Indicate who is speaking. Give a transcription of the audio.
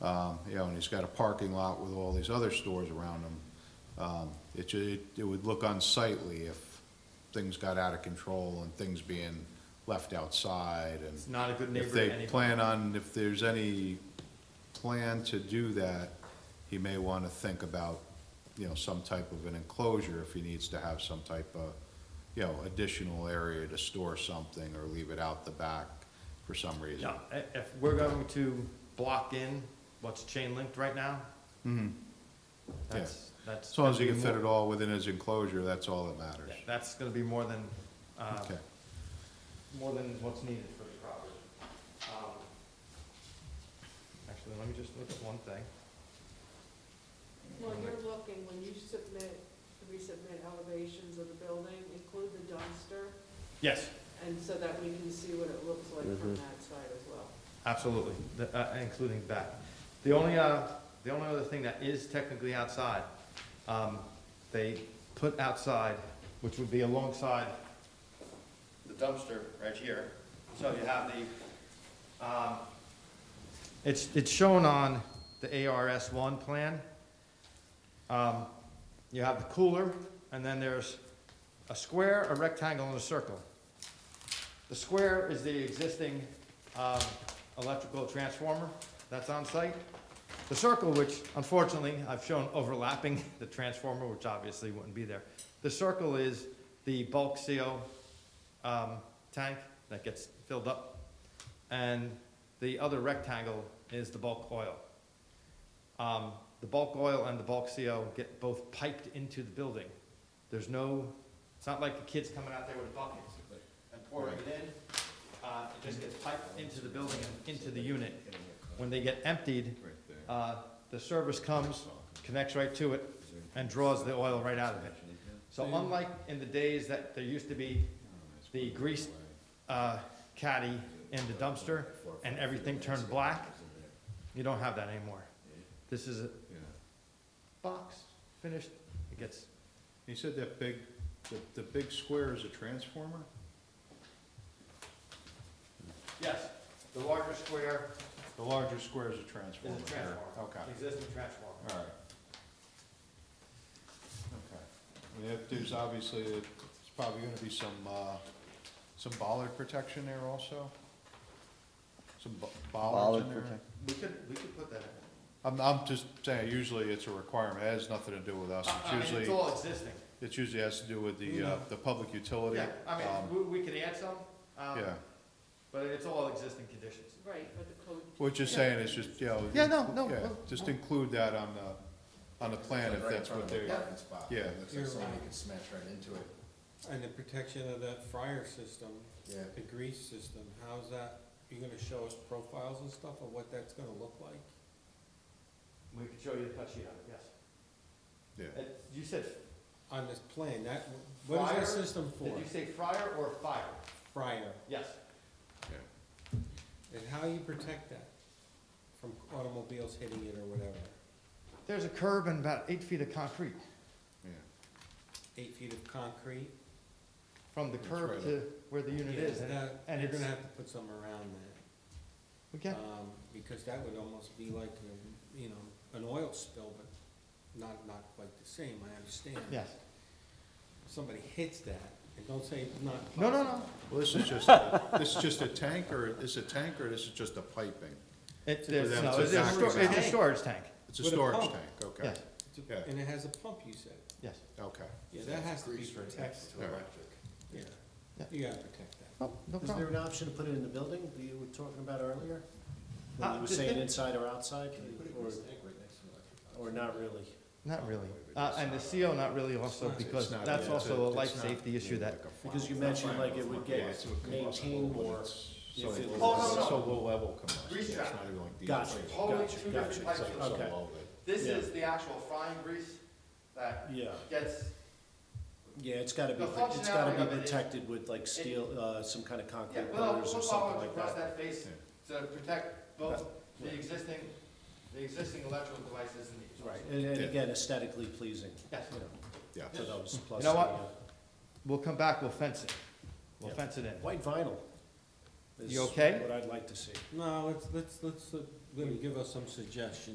Speaker 1: Um, You know, and he's got a parking lot with all these other stores around him. Um, It, ju- it- it would look unsightly if things got out of control and things being left outside and.
Speaker 2: It's not a good neighbor
Speaker 1: If
Speaker 2: to
Speaker 1: they
Speaker 2: anybody.
Speaker 1: plan on, if there's any plan to do that, he may want to think about, you know, some type of an enclosure if he needs to have some type of, you know, additional area to store something or leave it out the back for some reason.
Speaker 2: No, i- if we're going to block in what's chain linked right now. That's, that's.
Speaker 1: Mm-hmm. As long as he can fit
Speaker 2: gonna
Speaker 1: it
Speaker 2: be
Speaker 1: all within his enclosure, that's all that
Speaker 2: more-
Speaker 1: matters.
Speaker 2: yeah, That's gonna be more than, uh,
Speaker 1: Okay,
Speaker 2: more than what's needed for the property. Um, Actually, let me just look at one thing.
Speaker 3: Well, you're looking, when you submit, we submit elevations of the building, include the dumpster,
Speaker 2: Yes,
Speaker 3: and so that we can see what it looks like from that side as well.
Speaker 2: absolutely, the- uh, including that. The only, uh, the only other thing that is technically outside, um, they put outside, which would be alongside the dumpster right here. So you have the, um, it's, it's shown on the ARS one plan. Um, you have the cooler, and then there's a square, a rectangle, and a circle. The square is the existing um, electrical transformer that's on site. The circle, which unfortunately I've shown overlapping the transformer, which obviously wouldn't be there. The circle is the bulk CO um, tank that gets filled up. And the other rectangle is the bulk oil. Um, The bulk oil and the bulk CO get both piped into the building. There's no, it's not like the kids coming out there with buckets and pouring it in. Uh, It just gets piped into the building and into the unit. When they get emptied, uh, the service comes, connects right to it, and draws the oil right out of it. So unlike in the days that there used to be the grease uh, caddy in the dumpster and everything turned black, you don't have that anymore. This is a box, finished, it gets,
Speaker 1: he said that big, the, the big square is a transformer?
Speaker 2: yes, the larger square
Speaker 1: The larger square is a
Speaker 2: is
Speaker 1: transformer.
Speaker 2: a transformer,
Speaker 1: Okay.
Speaker 2: existing transformer.
Speaker 1: All right. Okay. I mean, if there's obviously, it's probably gonna be some, uh, some bollard protection there also? Some bo- bollards in
Speaker 4: Bollard
Speaker 1: there?
Speaker 4: protect-
Speaker 2: We could, we could put that in.
Speaker 1: I'm, I'm just saying, usually it's a requirement, it has nothing to do with us,
Speaker 2: Uh, I- I mean,
Speaker 1: it's
Speaker 2: it's
Speaker 1: usually,
Speaker 2: all existing.
Speaker 1: it usually has to do with the, uh, the public utility.
Speaker 2: Yeah, I
Speaker 1: um,
Speaker 2: mean, we, we could add some, um,
Speaker 1: Yeah,
Speaker 2: but it's all existing conditions.
Speaker 3: Right, but the code.
Speaker 1: we're just saying, it's just, you know.
Speaker 2: Yeah, no, no,
Speaker 1: yeah,
Speaker 2: well-
Speaker 1: Just include that on the, on the plan if that's what
Speaker 2: Yeah.
Speaker 1: they're,
Speaker 5: Yeah,
Speaker 1: Yeah.
Speaker 5: it looks
Speaker 6: You're
Speaker 5: like somebody
Speaker 6: right.
Speaker 5: could smash right into it,
Speaker 6: And the protection of that fryer system,
Speaker 5: yeah.
Speaker 6: the grease system, how's that, you're gonna show us profiles and stuff of what that's gonna look like?
Speaker 2: We could show you the cut sheet on it, yes.
Speaker 1: yeah.
Speaker 2: Uh, You said,
Speaker 6: On this plan, that, what is
Speaker 2: Fryer?
Speaker 6: that system
Speaker 2: did
Speaker 6: for?
Speaker 2: you say fryer or fire?
Speaker 6: Fryer,
Speaker 2: Yes.
Speaker 6: and how you protect that from automobiles hitting it or whatever?
Speaker 2: There's a curb and about eight feet of concrete,
Speaker 1: yeah.
Speaker 6: Eight feet of concrete?
Speaker 2: from the
Speaker 1: That's
Speaker 2: curb
Speaker 1: right.
Speaker 2: to where the unit is, and,
Speaker 6: That-
Speaker 2: and
Speaker 6: You're
Speaker 2: it's,
Speaker 6: gonna have to put some around that,
Speaker 2: we can,
Speaker 6: um, because that would almost be like, a, you know, an oil spill, but not, not quite the same, I understand.
Speaker 2: yes.
Speaker 6: Somebody hits that, and don't say it's not
Speaker 2: No, no,
Speaker 6: possible.
Speaker 2: no,
Speaker 1: Well, this is just, a- this is just a tank, or this is a tank, or this is just a piping?
Speaker 2: it's,
Speaker 1: For
Speaker 2: there's,
Speaker 1: them
Speaker 2: no,
Speaker 1: to
Speaker 2: it's a
Speaker 1: dock
Speaker 2: stor-
Speaker 1: it
Speaker 2: it's a
Speaker 6: out.
Speaker 2: storage tank,
Speaker 1: It's a
Speaker 6: With a
Speaker 1: storage
Speaker 6: pump.
Speaker 1: tank, okay,
Speaker 2: yes,
Speaker 6: It's a-
Speaker 1: Yeah.
Speaker 6: And it has a pump, you said?
Speaker 2: yes.
Speaker 1: okay.
Speaker 6: Yeah, that has to be
Speaker 5: Grease right next
Speaker 6: protected.
Speaker 5: to electric.
Speaker 6: Yeah,
Speaker 2: Yeah.
Speaker 6: you gotta protect that.
Speaker 2: Oh, no
Speaker 7: Is there
Speaker 2: problem.
Speaker 7: an option to put it in the building that you were talking about earlier? When
Speaker 2: Uh,
Speaker 7: you were
Speaker 2: just
Speaker 7: saying
Speaker 2: get-
Speaker 7: inside or outside,
Speaker 5: Can you put it in
Speaker 7: or,
Speaker 5: this tank right next to electric?
Speaker 7: or not really?
Speaker 2: Not really. Uh, and the CO not really also,
Speaker 6: It's
Speaker 2: because
Speaker 1: It's not-
Speaker 2: that's
Speaker 1: it's
Speaker 2: also a
Speaker 1: it's
Speaker 2: life
Speaker 1: not
Speaker 2: safety
Speaker 1: like
Speaker 2: issue that,
Speaker 1: a farm.
Speaker 7: Because you
Speaker 1: It's not
Speaker 7: mentioned
Speaker 1: farm.
Speaker 7: like it would
Speaker 1: Yeah,
Speaker 7: get
Speaker 1: it's a combustible,
Speaker 7: maintained
Speaker 1: but
Speaker 7: more
Speaker 1: it's so
Speaker 7: if it
Speaker 1: low-
Speaker 2: was- Oh, no, no.
Speaker 1: So low level combustible,
Speaker 2: Grease
Speaker 1: it's
Speaker 2: trap.
Speaker 1: not even like diesel.
Speaker 7: Gotcha,
Speaker 1: It's
Speaker 2: Totally
Speaker 7: gotcha,
Speaker 2: two different
Speaker 7: gotcha,
Speaker 2: types
Speaker 1: like
Speaker 2: of-
Speaker 1: so
Speaker 7: okay.
Speaker 1: low that-
Speaker 2: This
Speaker 7: Yeah.
Speaker 2: is the actual frying grease that
Speaker 7: Yeah.
Speaker 2: gets,
Speaker 7: Yeah, it's gotta be,
Speaker 2: The
Speaker 7: pro- it's gotta
Speaker 2: functionality of
Speaker 7: be
Speaker 2: it is-
Speaker 7: protected with like steel, uh, some kind of
Speaker 2: yeah,
Speaker 7: concrete
Speaker 2: well,
Speaker 7: pillars
Speaker 2: we'll follow
Speaker 7: or something
Speaker 2: it
Speaker 7: like
Speaker 2: across that
Speaker 7: that.
Speaker 2: face to protect both the existing, the existing electrical devices and the.
Speaker 7: Right, and, and
Speaker 1: Yeah.
Speaker 7: again, aesthetically pleasing,
Speaker 2: Yes.
Speaker 7: you know, to
Speaker 1: Yeah,
Speaker 7: those plus.
Speaker 2: know
Speaker 7: the,
Speaker 2: what?
Speaker 7: uh,
Speaker 2: We'll come back, we'll fence it. We'll
Speaker 7: Yeah.
Speaker 2: fence it in.
Speaker 7: White uh, vinyl. is
Speaker 2: You okay?
Speaker 7: What I'd like to see.
Speaker 6: No, let's, let's, let's, uh, Libby, give us some suggestions.